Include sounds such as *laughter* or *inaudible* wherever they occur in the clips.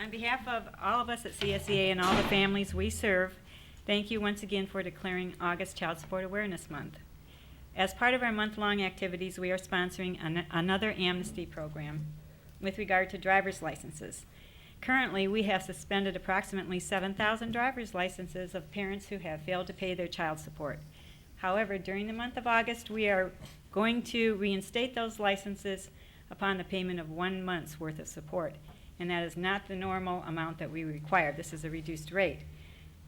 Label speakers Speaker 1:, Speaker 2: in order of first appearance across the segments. Speaker 1: On behalf of all of us at CSEA and all the families we serve, thank you once again for declaring August Child Support Awareness Month. As part of our month-long activities, we are sponsoring an- another amnesty program with regard to driver's licenses. Currently, we have suspended approximately 7,000 driver's licenses of parents who have failed to pay their child support. However, during the month of August, we are going to reinstate those licenses upon the payment of one month's worth of support. And that is not the normal amount that we require. This is a reduced rate.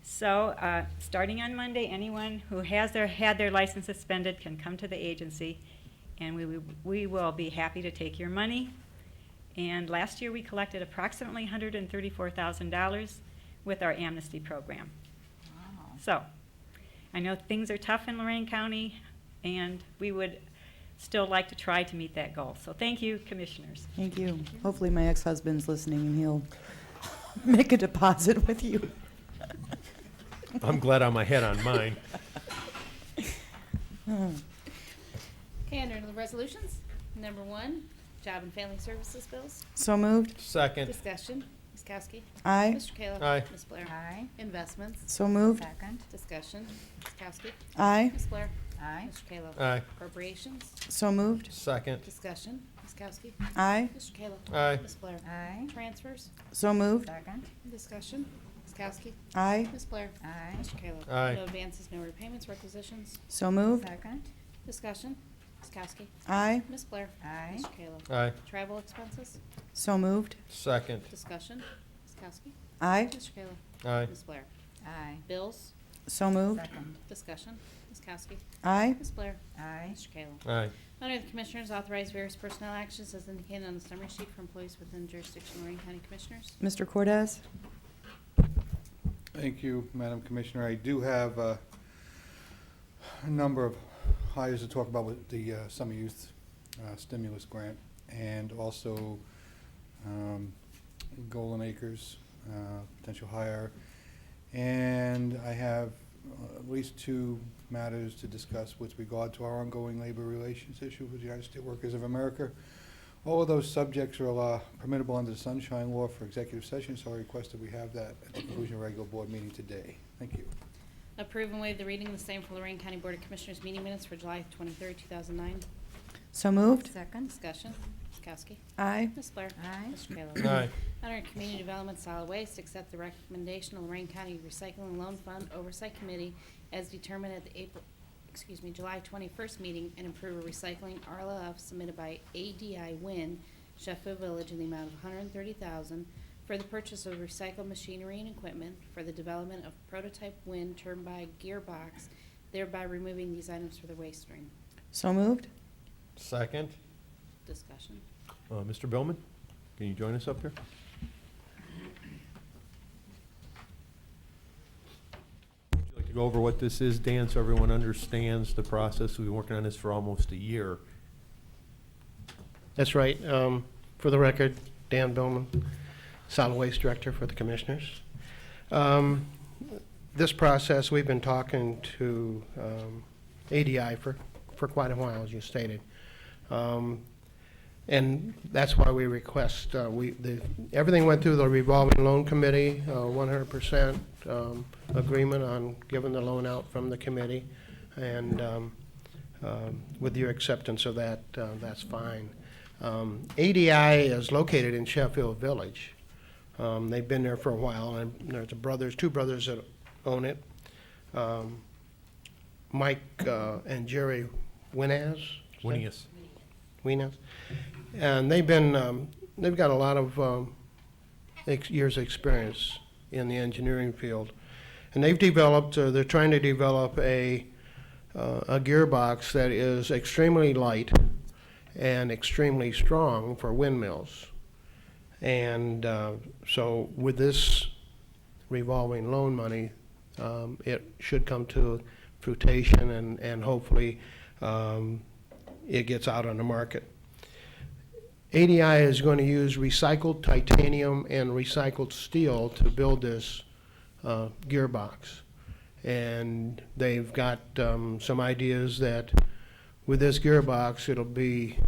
Speaker 1: So, uh, starting on Monday, anyone who has their, had their license suspended can come to the agency, and we, will- we will be happy to take your money. And last year, we collected approximately $134,000 with our amnesty program.
Speaker 2: Wow.
Speaker 1: So, I know things are tough in Lorraine County, and we would still like to try to meet that goal. So thank you, commissioners.
Speaker 2: Thank you. Hopefully, my ex-husband's listening and he'll *laughs* make a deposit with you.
Speaker 3: I'm glad I'm ahead on mine.
Speaker 4: Okay, under the resolutions, number one, Job and Family Services bills.
Speaker 2: So moved.
Speaker 3: Second,
Speaker 4: Discussion, Ms. Kowski.
Speaker 2: Aye.
Speaker 4: Mr. Kayla.
Speaker 3: Aye.
Speaker 4: Ms. Blair.
Speaker 5: Aye.
Speaker 4: Investments,
Speaker 2: So moved.
Speaker 5: Second.
Speaker 4: discussion, Ms. Kowski.
Speaker 2: Aye.
Speaker 4: Ms. Blair.
Speaker 5: Aye.
Speaker 4: Mr. Kayla.
Speaker 3: aye,
Speaker 4: Appropriations,
Speaker 2: So moved.
Speaker 3: second,
Speaker 4: discussion, Ms. Kowski.
Speaker 2: Aye.
Speaker 4: Mr. Kayla.
Speaker 3: Aye.
Speaker 4: Ms. Blair.
Speaker 5: Aye.
Speaker 4: Transfers,
Speaker 2: So moved.
Speaker 5: Second.
Speaker 4: discussion, Ms. Kowski.
Speaker 2: Aye.
Speaker 4: Ms. Blair.
Speaker 5: Aye.
Speaker 4: Mr. Kayla.
Speaker 3: Aye.
Speaker 4: No advances, no repayments, requisitions,
Speaker 2: So moved.
Speaker 5: Second.
Speaker 4: discussion, Ms. Kowski.
Speaker 2: Aye.
Speaker 4: Ms. Blair.
Speaker 5: Aye.
Speaker 4: Mr. Kayla.
Speaker 3: aye,
Speaker 4: Travel expenses,
Speaker 2: So moved.
Speaker 3: second,
Speaker 4: discussion, Ms. Kowski.
Speaker 2: Aye.
Speaker 4: Mr. Kayla.
Speaker 3: aye,
Speaker 4: Ms. Blair.
Speaker 5: Aye.
Speaker 4: Bills,
Speaker 2: So moved.
Speaker 5: Second.
Speaker 4: discussion, Ms. Kowski.
Speaker 2: Aye.
Speaker 4: Ms. Blair.
Speaker 5: Aye.
Speaker 4: Mr. Kayla.
Speaker 3: aye,
Speaker 4: Under the Commissioners, authorize various personnel actions as indicated on the summary sheet for employees within jurisdiction of Lorraine County Commissioners.
Speaker 2: Mr. Cortez?
Speaker 6: Thank you, Madam Commissioner. I do have uh, a number of hires to talk about with the uh, summer youth uh, stimulus grant and also um, Golden Acres uh, potential hire. And I have uh, at least two matters to discuss with regard to our ongoing labor relations issue with the United States Workers of America. All of those subjects are uh, permissible under the Sunshine Law for executive session, so I request that we have that at the conclusion of regular board meeting today. Thank you.
Speaker 4: Approve and waive the reading of the same for Lorraine County Board of Commissioners meeting minutes for July 23rd, 2009.
Speaker 2: So moved.
Speaker 5: Second.
Speaker 4: Discussion, Ms. Kowski.
Speaker 2: Aye.
Speaker 4: Ms. Blair.
Speaker 5: Aye.
Speaker 4: Mr. Kayla.
Speaker 3: aye,
Speaker 4: Under Community Development Solid Waste, accept the recommendation of Lorraine County Recycling Loan Fund Oversight Committee as determined at the April, excuse me, July 21st meeting and approve a recycling RLF submitted by ADI Win Sheffield Village in the amount of $130,000 for the purchase of recycled machinery and equipment for the development of prototype wind turbine gearbox, thereby removing these items for the waste stream.
Speaker 2: So moved.
Speaker 3: second.
Speaker 4: Discussion.
Speaker 3: Uh, Mr. Billman, can you join us up here? Would you like to go over what this is, Dan, so everyone understands the process? We've been working on this for almost a year.
Speaker 7: That's right. Um, For the record, Dan Billman, Solid Waste Director for the Commissioners. Um, This process, we've been talking to um, ADI for, for quite a while, as you stated. Um, And that's why we request, uh, we, the, everything went through the revolving loan committee, uh, one hundred percent um, agreement on giving the loan out from the committee. And um, um, with your acceptance of that, uh, that's fine. Um, ADI is located in Sheffield Village. Um, They've been there for a while, and there's a brothers, two brothers that own it. Um, Mike uh, and Jerry Winaz? is that-
Speaker 3: Winning us.
Speaker 7: Winas. And they've been, um, they've got a lot of um, ex- years' experience in the engineering field. And they've developed, uh, they're trying to develop a, uh, a gearbox that is extremely light and extremely strong for windmills. And uh, so with this revolving loan money, um, it should come to fruition and, and hopefully um, it gets out on the market. ADI is going to use recycled titanium and recycled steel to build this uh, gearbox. And they've got um, some ideas that with this gearbox, it'll be